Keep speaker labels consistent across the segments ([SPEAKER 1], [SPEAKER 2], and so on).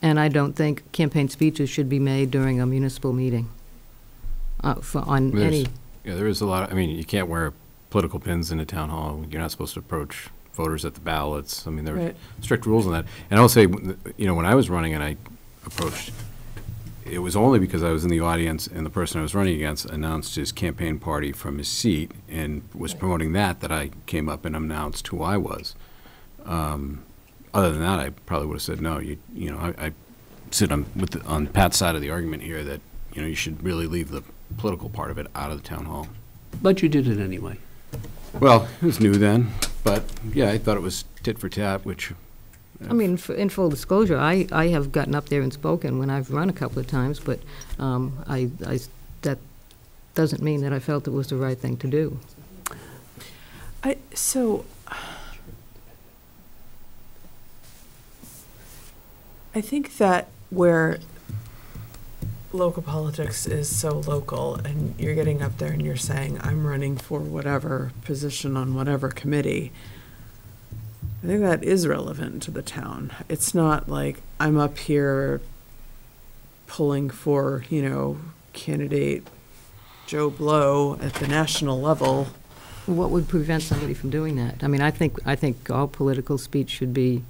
[SPEAKER 1] And I don't think campaign speeches should be made during a municipal meeting uh, for, on
[SPEAKER 2] There's-
[SPEAKER 1] any,
[SPEAKER 2] Yeah, there is a lot, I mean, you can't wear political pins in a town hall, you're not supposed to approach voters at the ballots, I mean, there are
[SPEAKER 1] Right.
[SPEAKER 2] strict rules on that. And I'll say, w- you know, when I was running and I approached, it was only because I was in the audience and the person I was running against announced his campaign party from his seat and was promoting that, that I came up and announced who I was. Um, Other than that, I probably would have said, no, you, you know, I, I sit on, with, the- on Pat's side of the argument here that, you know, you should really leave the political part of it out of the town hall.
[SPEAKER 3] But you did it anyway.
[SPEAKER 2] Well, it was new then, but yeah, I thought it was tit for tat, which,
[SPEAKER 1] I mean, f- in full disclosure, I, I have gotten up there and spoken when I've run a couple of times, but um, I, I s- that doesn't mean that I felt it was the right thing to do.
[SPEAKER 4] I, so, I think that where local politics is so local, and you're getting up there and you're saying, I'm running for whatever position on whatever committee, I think that is relevant to the town. It's not like I'm up here pulling for, you know, candidate Joe Blow at the national level.
[SPEAKER 1] What would prevent somebody from doing that? I mean, I think, I think all political speech should be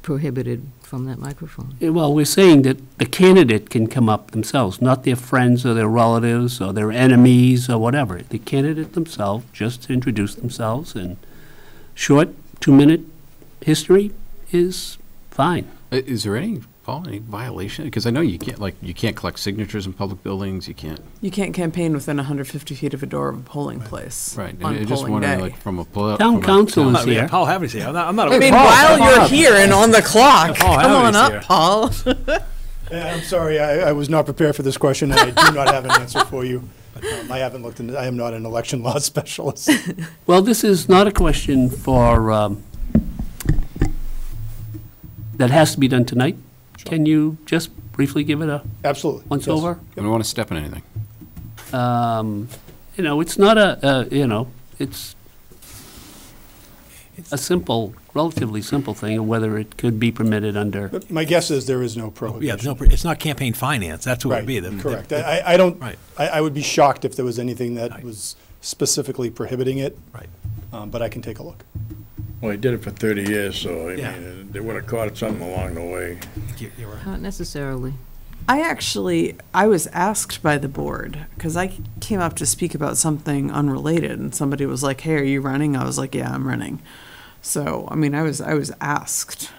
[SPEAKER 1] prohibited from that microphone.
[SPEAKER 3] Eh, Well, we're saying that the candidate can come up themselves, not their friends or their relatives or their enemies or whatever. The candidate themselves, just to introduce themselves and short two-minute history is fine.
[SPEAKER 2] i- uh, is there any, Paul, any violation? Because I know you can't, like, you can't collect signatures in public buildings, you can't,
[SPEAKER 4] You can't campaign within 150 feet of a door of a polling place.
[SPEAKER 2] right? and I
[SPEAKER 4] On
[SPEAKER 2] just
[SPEAKER 4] polling
[SPEAKER 2] wondering,
[SPEAKER 4] day.
[SPEAKER 2] like, from a. poli-
[SPEAKER 3] Town
[SPEAKER 2] from a
[SPEAKER 3] council
[SPEAKER 2] town-
[SPEAKER 3] is here.
[SPEAKER 5] Paul Haverty's here. I'm not, I'm not a
[SPEAKER 4] I mean,
[SPEAKER 5] Paul,
[SPEAKER 4] while
[SPEAKER 5] come
[SPEAKER 4] you're
[SPEAKER 5] on.
[SPEAKER 4] here and on the clock,
[SPEAKER 5] Paul
[SPEAKER 4] come on
[SPEAKER 5] Haverty's
[SPEAKER 4] up,
[SPEAKER 5] here.
[SPEAKER 4] Paul.
[SPEAKER 6] Yeah, Uh, I'm sorry, I, I was not prepared for this question, and I do not have an answer for you. Um, I haven't looked into, I am not an election law specialist.
[SPEAKER 3] Well, this is not a question for, um, that has to be done tonight. Can you just briefly give it a
[SPEAKER 6] Absolutely.
[SPEAKER 3] once
[SPEAKER 6] yes.
[SPEAKER 3] over?
[SPEAKER 2] I don't want to step on anything.
[SPEAKER 3] Um, You know, it's not a, uh, you know, it's a simple, relatively simple thing, of whether it could be permitted under,
[SPEAKER 6] But My guess is there is no
[SPEAKER 5] Yeah, there's
[SPEAKER 6] prohibition.
[SPEAKER 5] no, pr- it's not campaign finance. That's what it
[SPEAKER 6] Right,
[SPEAKER 5] would be. The- the-
[SPEAKER 6] correct. I, I- I don't, I,
[SPEAKER 5] Right.
[SPEAKER 6] I would be shocked if there was anything that
[SPEAKER 5] Right.
[SPEAKER 6] was specifically prohibiting it,
[SPEAKER 5] Right.
[SPEAKER 6] um, but I can take a look.
[SPEAKER 7] Well, he did it for 30 years, so, I
[SPEAKER 5] Yeah.
[SPEAKER 7] mean, they would have caught something along the way.
[SPEAKER 5] You're- you're right.
[SPEAKER 1] Not necessarily.
[SPEAKER 4] I actually, I was asked by the board, because I came up to speak about something unrelated, and somebody was like, hey, are you running? I was like, yeah, I'm running. So, I mean, I was, I was asked.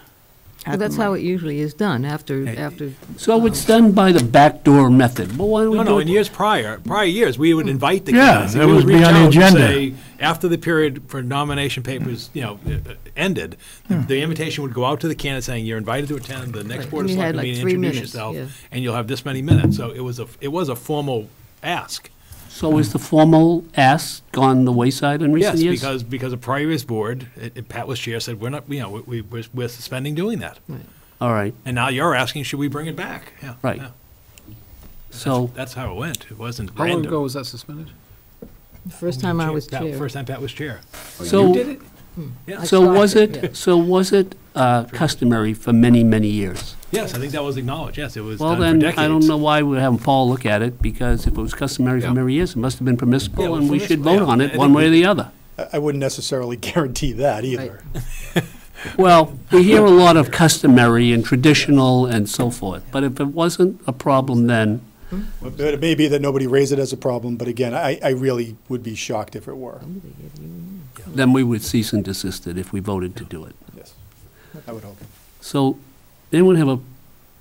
[SPEAKER 4] at
[SPEAKER 1] Well,
[SPEAKER 4] the
[SPEAKER 1] that's how
[SPEAKER 4] mic.
[SPEAKER 1] it usually is done, after,
[SPEAKER 5] Hey,
[SPEAKER 1] after.
[SPEAKER 3] so it's done by the backdoor method. Well, why don't we
[SPEAKER 5] No,
[SPEAKER 3] do it?
[SPEAKER 5] no, in years prior, prior years, we would invite the
[SPEAKER 7] Yeah,
[SPEAKER 5] candidates.
[SPEAKER 7] that
[SPEAKER 5] We
[SPEAKER 7] would be
[SPEAKER 5] reach
[SPEAKER 7] on the
[SPEAKER 5] out and
[SPEAKER 7] agenda.
[SPEAKER 5] say, After the period for nomination papers, you know, uh, uh, ended, the-
[SPEAKER 7] Hmm.
[SPEAKER 5] the invitation would go out to the candidate saying, you're invited to attend the next
[SPEAKER 1] Right,
[SPEAKER 5] Board
[SPEAKER 1] and
[SPEAKER 5] of
[SPEAKER 1] you had,
[SPEAKER 5] Selectmen
[SPEAKER 1] like,
[SPEAKER 5] meeting,
[SPEAKER 1] three
[SPEAKER 5] introduce
[SPEAKER 1] minutes,
[SPEAKER 5] yourself,
[SPEAKER 1] yeah.
[SPEAKER 5] and you'll have this many minutes. So it was a, it was a formal ask.
[SPEAKER 3] So is the formal ask gone the wayside in recent
[SPEAKER 5] Yes,
[SPEAKER 3] years?
[SPEAKER 5] because, because a previous board, it- it- Pat was chair, said, we're not, you know, we, we- we're suspending doing that.
[SPEAKER 3] All right,
[SPEAKER 5] And now you're asking, should we bring it back? Yeah,
[SPEAKER 3] Right.
[SPEAKER 5] yeah.
[SPEAKER 3] so,
[SPEAKER 5] That's how it went. It wasn't
[SPEAKER 8] How long
[SPEAKER 5] random.
[SPEAKER 8] ago was that suspended?
[SPEAKER 1] The First time I was
[SPEAKER 5] Pat-
[SPEAKER 1] chair.
[SPEAKER 5] First time Pat was chair.
[SPEAKER 8] Oh,
[SPEAKER 3] so.
[SPEAKER 5] Yeah.
[SPEAKER 3] So
[SPEAKER 1] stopped
[SPEAKER 3] was
[SPEAKER 1] it, yeah.
[SPEAKER 3] it, so was it uh, customary for many, many years?
[SPEAKER 5] Yes, I think that was acknowledged. Yes, it was
[SPEAKER 3] Well,
[SPEAKER 5] done for
[SPEAKER 3] then,
[SPEAKER 5] decades.
[SPEAKER 3] I don't know why we're having Paul look at it, because if it was customary for
[SPEAKER 2] Yeah.
[SPEAKER 3] many years, it must have been
[SPEAKER 5] Yeah, it
[SPEAKER 3] permissible,
[SPEAKER 5] was
[SPEAKER 3] and we should
[SPEAKER 5] permissible,
[SPEAKER 3] vote
[SPEAKER 5] yeah.
[SPEAKER 3] on
[SPEAKER 5] I
[SPEAKER 3] it
[SPEAKER 5] think
[SPEAKER 3] one way or
[SPEAKER 5] we-
[SPEAKER 3] the other.
[SPEAKER 6] I, I wouldn't necessarily guarantee that either.
[SPEAKER 3] Well, we hear a lot of customary and traditional and so forth, but if it wasn't a problem then,
[SPEAKER 6] But but it may be that nobody raised it as a problem, but again, I, I really would be shocked if it
[SPEAKER 1] Oh,
[SPEAKER 6] were,
[SPEAKER 3] then we would cease and desist it if we voted to do it.
[SPEAKER 6] yes. I would hope.
[SPEAKER 3] So, anyone have a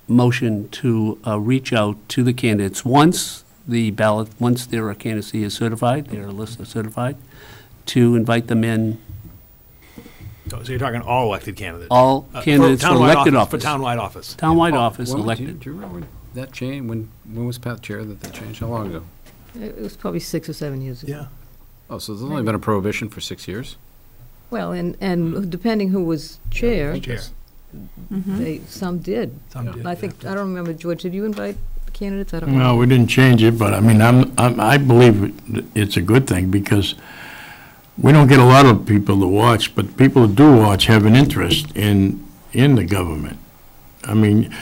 [SPEAKER 3] motion to uh, reach out to the candidates once the ballot, once their candidacy is certified, their list is certified, to invite them in,
[SPEAKER 5] So so you're talking all elected candidates?
[SPEAKER 3] all
[SPEAKER 5] Uh, for
[SPEAKER 3] candidates for
[SPEAKER 5] townwide
[SPEAKER 3] elected
[SPEAKER 5] office-
[SPEAKER 3] office.
[SPEAKER 5] For townwide office.
[SPEAKER 3] Townwide office
[SPEAKER 2] When would you-
[SPEAKER 3] elected.
[SPEAKER 2] Do you remember when that change, when, when was Pat chair that that changed? How long ago?
[SPEAKER 1] It was probably six or seven years ago.
[SPEAKER 5] Yeah.
[SPEAKER 2] Oh, so there's only been a prohibition for six years?
[SPEAKER 1] Well, and, and depending who was chair,
[SPEAKER 5] Chair.
[SPEAKER 1] they, some did.
[SPEAKER 5] Some did,
[SPEAKER 1] I
[SPEAKER 5] yeah.
[SPEAKER 1] think, I don't remember, George, did you invite candidates? I don't
[SPEAKER 7] No,
[SPEAKER 1] know.
[SPEAKER 7] we didn't change it, but I mean, I'm, I'm- I believe it's a good thing because we don't get a lot of people to watch, but people who do watch have an interest in, in the government. I mean,